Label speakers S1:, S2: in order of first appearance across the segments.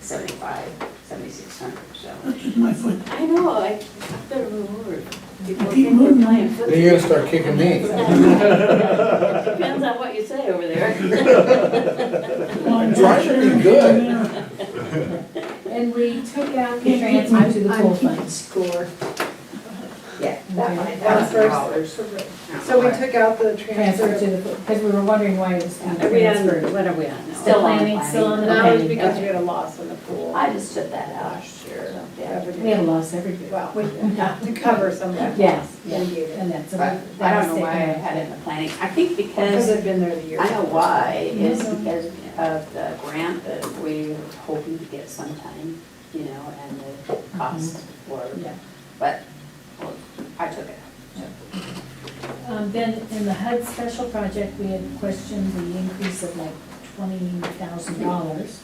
S1: seventy-five, seventy-six hundred, so.
S2: That's just my foot.
S1: I know, I I better move over. People
S2: Keep
S1: think we're
S2: moving.
S1: playing football.
S3: Then you're gonna start kicking me.
S1: Depends on what you say over there.
S3: Try to be good.
S4: And we took out
S2: the
S4: the
S2: transfer
S4: transfer
S2: to the pool
S4: fund score.
S1: Yeah, that
S4: that
S1: one,
S4: one,
S1: thousand dollars.
S4: $1,000.
S5: So we took out the transfer.
S4: Transfer to the, because we were wondering why it was being
S1: Are we on,
S4: transferred.
S1: what are we on now?
S4: Still planning, still on the
S5: That was
S4: planning.
S5: because we had a loss in the pool
S1: I just took that out.
S5: last year.
S1: So, yeah.
S4: We have
S5: Revenue.
S4: lost every year.
S5: Well, we have to cover some of that.
S4: Yes, yeah,
S5: We gave it.
S4: and that's. a-
S1: But I
S4: that was
S1: don't know why I
S4: taken
S1: had it in the planning. I think
S5: Because
S1: because,
S5: I've been there the year.
S1: I know why, is
S4: Mhm.
S1: because of the grant that we were hoping to get sometime, you know, and the cost were,
S4: out. Yeah.
S1: but, well, I took it.
S4: Um, Then in the HUD special project, we had questioned the increase of like twenty thousand dollars.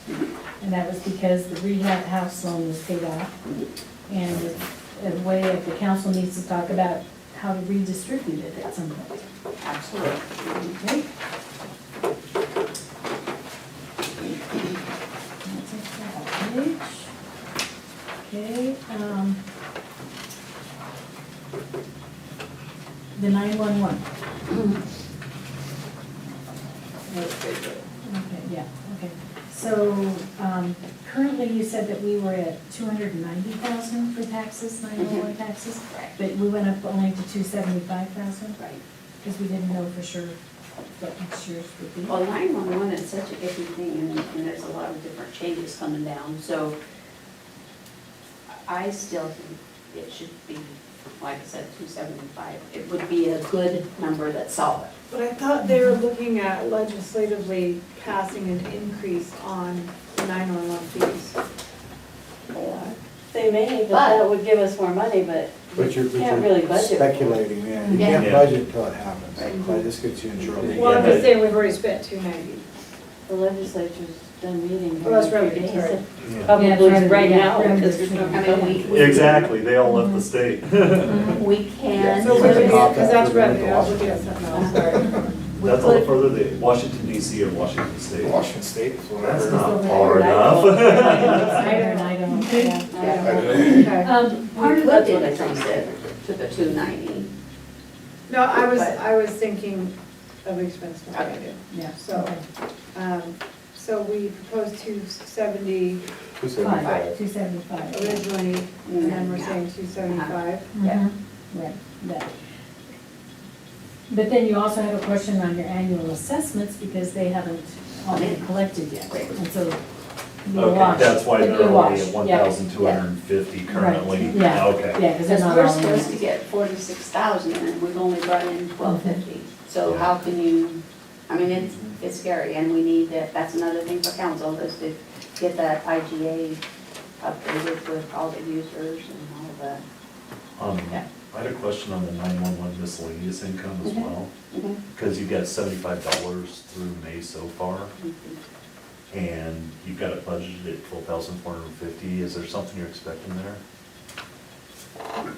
S4: And that was because the rehab house loan was paid off. And a way if the council needs to talk about how to redistribute it at some point.
S1: Absolutely.
S4: Okay. um, Okay, um. The nine-one-one, okay, yeah, okay. So, um, currently you said that we were at two hundred and ninety thousand for taxes, nine-one-one taxes,
S1: Mm-hmm. Right.
S4: but we went up only to two seventy-five thousand?
S1: Right.
S4: Because we didn't know for sure what next year's would be.
S1: Well, nine-one-one is such a iffy thing, and, and there's a lot of different changes coming down, so I still think it should be, like I said, two seventy-five. It would be a good number that's solid.
S5: But I thought they were looking at legislatively passing an increase on the 911 fees.
S1: They may,
S6: but that
S1: would give us more money, but
S6: But you're, but
S1: Can't really
S6: you're
S1: budget.
S6: speculating, man. You
S1: Yeah.
S6: can't
S7: Yeah.
S6: budget till it happens. Like, this gets you in
S5: Well, I'm
S6: trouble.
S5: just saying we've already spent 290.
S1: the legislature's done meeting.
S5: Well, that's revenue, sorry.
S4: Yeah, it's revenue, yeah, revenue.
S7: Exactly, they all left the state. Mm-hmm.
S4: Mm-hmm.
S1: We can.
S5: So we're
S6: Yeah.
S5: looking at,
S6: Yeah.
S5: because that's revenue, I was looking at something else, sorry.
S1: we
S7: That's all the
S1: could-
S7: further they, Washington DC and Washington state.
S3: Washington State is
S7: That's
S3: whatever.
S7: not far enough.
S4: Higher and I don't, yeah.
S5: Okay.
S4: Um, part
S1: We
S4: of
S1: could
S4: the-
S1: do the to the two ninety.
S5: No, I was, I was thinking of expense. not
S1: Okay.
S5: revenue.
S4: yeah,
S5: So-
S4: okay.
S5: Um, So we proposed 270
S6: Two
S4: Five,
S6: seventy-five.
S4: two seventy-five. Mm-hmm.
S5: originally, and then we're saying 275.
S1: Yeah.
S4: Right, that. But then you also have a question on your annual assessments, because they haven't all been collected yet,
S1: Right.
S4: and so. it'd be a
S7: Okay,
S4: wash.
S7: that's why
S4: It'd
S7: they're
S4: be a
S7: only
S4: wash,
S7: at
S4: yeah.
S7: one thousand two hundred and fifty currently.
S4: Right, yeah.
S7: Okay.
S4: Yeah, because they're
S1: Because
S4: not
S1: we're
S4: all in
S1: supposed to
S4: yet.
S1: get forty-six thousand and we've only brought in twelve fifty. So how can you, I mean, it's, it's scary and we need that, that's another thing for council is to get that IGA updated with all the users and all of that.
S7: Um,
S1: Yeah.
S7: I had a question on the nine-one-one miscellaneous income as
S4: Mm-hmm.
S1: Mhm.
S7: well, because you've got seventy-five dollars through May so far, and you've got it budgeted at twelve thousand four hundred and fifty. Is there something you're expecting there?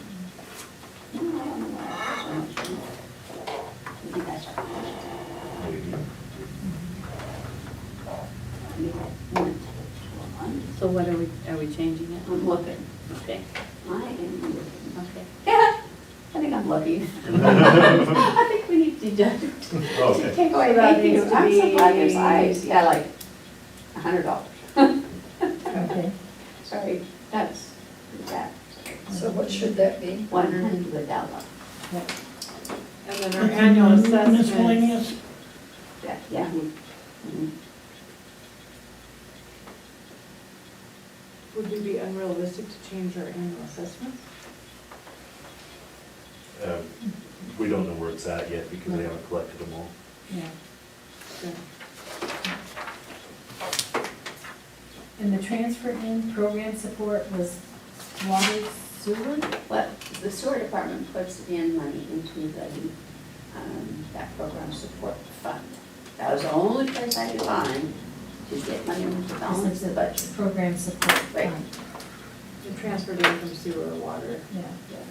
S7: Maybe.
S1: So what are we, are we changing it? I'm looking. Okay. I am looking, okay. Yeah, I think I'm lucky. I think we need to deduct, to
S7: Okay.
S1: take away,
S5: So that
S1: thank you,
S5: needs to
S1: I'm so glad there's
S5: be-
S1: eyes, yeah, like, a hundred dollars.
S4: Okay,
S1: Sorry, that's, that,
S8: So what should that be?
S1: one hundred dollars.
S5: And then our annual assessment.
S2: Miscellaneous,
S1: Yeah, yeah. Mhm.
S5: Would it be unrealistic to change our annual assessment?
S7: Uh, We don't know where it's at yet because they haven't collected them all.
S4: yeah.
S5: Yeah.
S4: And the transfer in program support was water sewer?
S1: Well, the sewer department puts in money into the, um, that program support fund. That was the only place I could find to get money to balance the budget.
S4: Program support um,
S1: Right.
S4: fund,
S5: And transferred in from sewer or water
S4: yeah.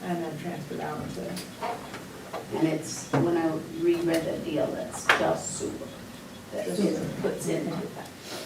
S5: and then transferred out to,
S1: And it's, when I reread the deal, that's just sewer, that it puts into that.